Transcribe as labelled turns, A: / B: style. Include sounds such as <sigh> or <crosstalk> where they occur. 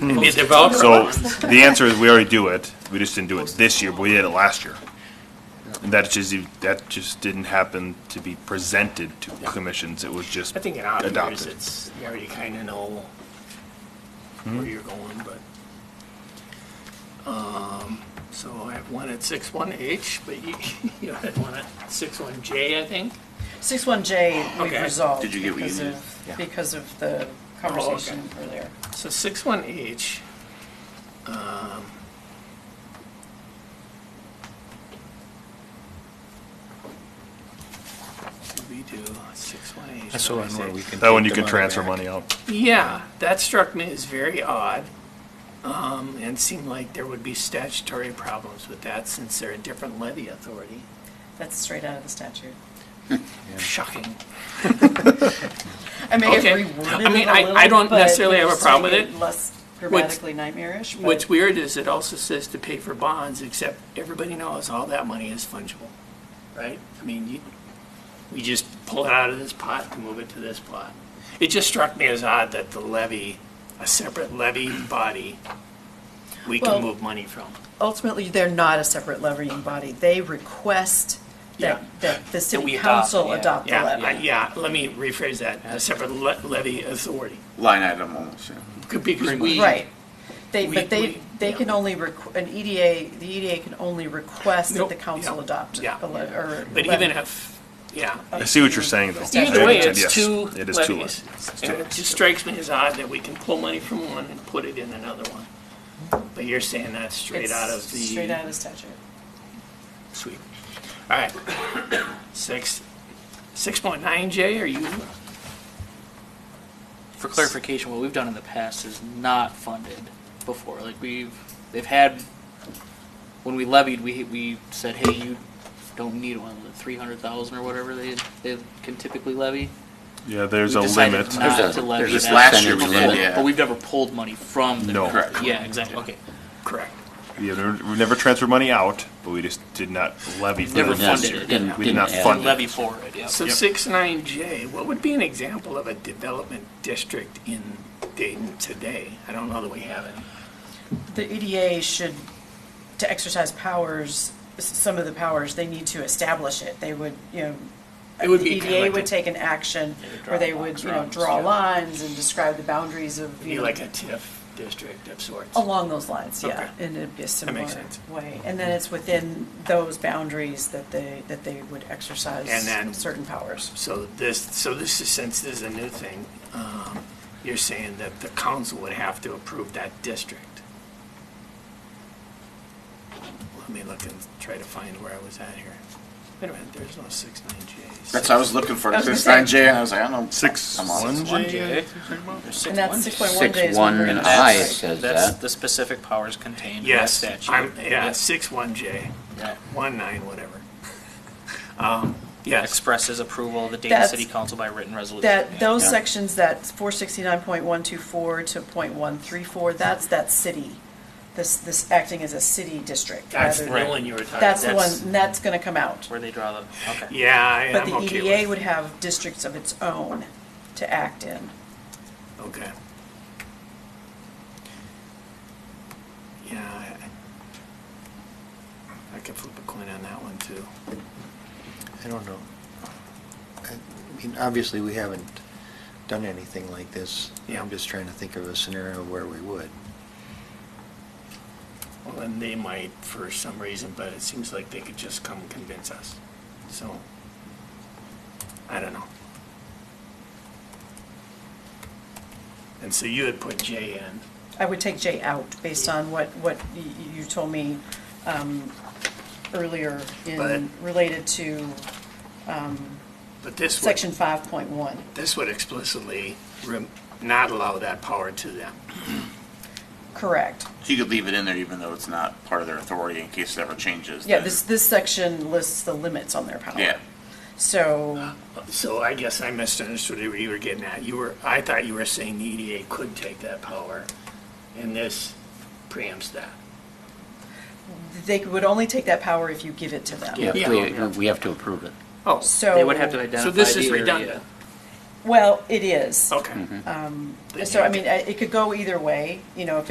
A: and be a developer.
B: So the answer is we already do it. We just didn't do it this year, but we did it last year. And that just, that just didn't happen to be presented to commissions. It was just
A: I think in odd years,
B: adopted.
A: it's, you already kind of know where you're going, but. Um, So I have one at six one h but you, <laughs> you had one at six one j I think.
C: Six one J, we've
A: Okay.
C: resolved.
D: Did you get what you
C: because
D: needed?
C: of- Because of
A: Oh,
C: the conversation earlier.
A: So six one H. um, We do six one H.
E: That's the one where we can.
B: That one
E: take
B: you
E: the
B: can transfer
E: back.
B: money out.
A: Yeah, that struck me as very odd, um, and seemed like there would be statutory problems with that since they're a different levy authority.
C: That's straight out of the statute.
A: Shocking.
C: I may have
A: Okay.
C: reworded it
A: I
C: a
A: mean, I-
C: little,
A: I don't
C: but
A: necessarily have a
C: just to
A: problem
C: make
A: with it.
C: Less grammatically nightmarish, but.
A: What's weird is it also says to pay for bonds, except everybody knows all that money is fungible, right? I mean, you, we just pull it out of this pot and move it to this pot. It just struck me as odd that the levy, a separate levy body, we
C: Well-
A: can move money from.
C: ultimately, they're not a separate levying body. They request that,
A: Yeah.
C: that the
D: we
C: city
D: adopt,
C: council
D: yeah.
C: adopt the
A: Yeah, I-
C: levy.
A: yeah, let me rephrase that, a separate le- levy authority.
D: Line item almost, yeah.
A: Could be,
D: Because we-
C: Right. They,
A: We-
C: but they,
A: we-
C: they
A: yeah.
C: can only, requ- an EDA, the EDA can only request that
A: Nope,
C: the council
A: yeah,
C: adopt
A: yeah.
C: a levy, or.
A: but
C: levy.
A: even if, yeah.
B: I see what you're saying, though.
C: Either
B: I
A: Either way,
B: understand.
A: it's
B: Yes,
A: two
B: It is two
A: levies.
B: levies.
A: And it just strikes me as odd that we can pull money from one and put it in another one. But you're saying that's straight
C: It's
A: out of
C: Straight out
A: the
C: of the statute.
A: sweep. All right. <coughs> Six, six point nine J, are you,
F: for clarification, what we've done in the past is not funded before. Like we've, they've had, when we levied, we, we said, hey, you don't need one, the three hundred thousand or whatever they, they can typically levy.
B: Yeah, there's
F: We
B: a
F: decided
B: limit.
F: not
D: There's a-
F: to levy
D: there's a
F: that
D: last year we
F: before,
D: did, yeah.
F: But we've never pulled money from the.
B: No.
D: Correct.
F: Yeah, exactly, okay.
A: correct?
B: Yeah, there- we never transferred money out, but we just did not levy for
F: Never
B: it this
F: funded
B: year.
F: it,
D: didn't-
B: We did not
D: didn't add
B: fund it.
F: Levy for it, yeah.
A: So
B: Yep.
A: six nine J, what would be an example of a development district in Dayton today? I don't know that we have any.
C: The EDA should, to exercise powers, s- some of the powers, they need to establish it. They would, you know,
A: It would
C: the
A: be kinda
C: EDA
A: like
C: would
A: a-
C: take an action where they would, you know,
D: lines,
C: draw
D: yeah.
C: lines and describe the boundaries of,
A: Be
C: you know,
A: like a TIF district of sorts.
C: along those lines, yeah,
A: Okay.
C: in a similar
A: makes sense.
C: way. And then it's within those boundaries that they, that they would exercise
A: And then-
C: certain powers.
A: So this, so this is, since this is a new thing, um, you're saying that the council would have to approve that district? Let me look and try to find where I was at here. Wait a minute, there's no six nine J's.
D: That's what I was looking for,
C: I was gonna
D: six
C: say-
D: nine J, and I was like, I don't know.
B: Six,
D: I'm on
B: one
D: six one
B: J?
C: And that's six point one
G: Six
C: J is
G: one
C: when we're
G: and
C: in-
G: I
C: Right.
G: says
F: That's
G: that.
F: the specific powers contained in that
A: Yes,
F: statute.
A: I'm, yeah, six one J,
F: Yeah.
A: one nine, whatever. <laughs> Um, Yes,
F: Expresses approval of the Dayton
C: That's-
F: City Council by written resolution.
C: That,
F: Yeah.
C: those
G: Yeah.
C: sections, that's four sixty-nine point one two four to point one three four, that's that city. This, this acting as a city district.
A: that's the
C: rather than-
A: one you were talking about.
C: That's the one,
F: That's-
C: and that's gonna come out.
F: Where they draw the, okay.
A: Yeah, I-
C: But
A: I'm
C: the
A: okay with.
C: EDA would have districts of its own to act in.
A: Okay. Yeah, I, I could flip a coin on that one too.
E: I don't know. I mean, obviously, we haven't done anything like this.
A: Yeah.
E: I'm just trying to think of a scenario where we would.
A: Well, then they might for some reason, but it seems like they could just come convince us, so, I don't know. And so you had put J in,
C: I would take J out based on what, what y- y- you told me um, earlier in,
A: But-
C: related to um,
A: but this would.
C: section 5.1.
A: This would explicitly rem- not allow that power to them.
C: Correct.
D: So you could leave it in there even though it's not part of their authority in case it ever changes.
C: Yeah,
D: then-
C: this, this section lists the limits on their power.
D: Yeah,
C: So,
A: So I guess I misunderstood what you were getting at. You were, I thought you were saying the EDA could take that power, and this preempts that.
C: they would only take that power if you give it to them.
G: Yeah,
A: Yeah.
G: we, we have to approve it.
A: Oh,
C: So.
F: They would have to
A: so
F: identify
A: this
F: the
A: is
F: area.
A: redundant.
C: Well, it is.
A: Okay.
F: Oh,
C: So, I mean, uh, it could go either way, you know, if it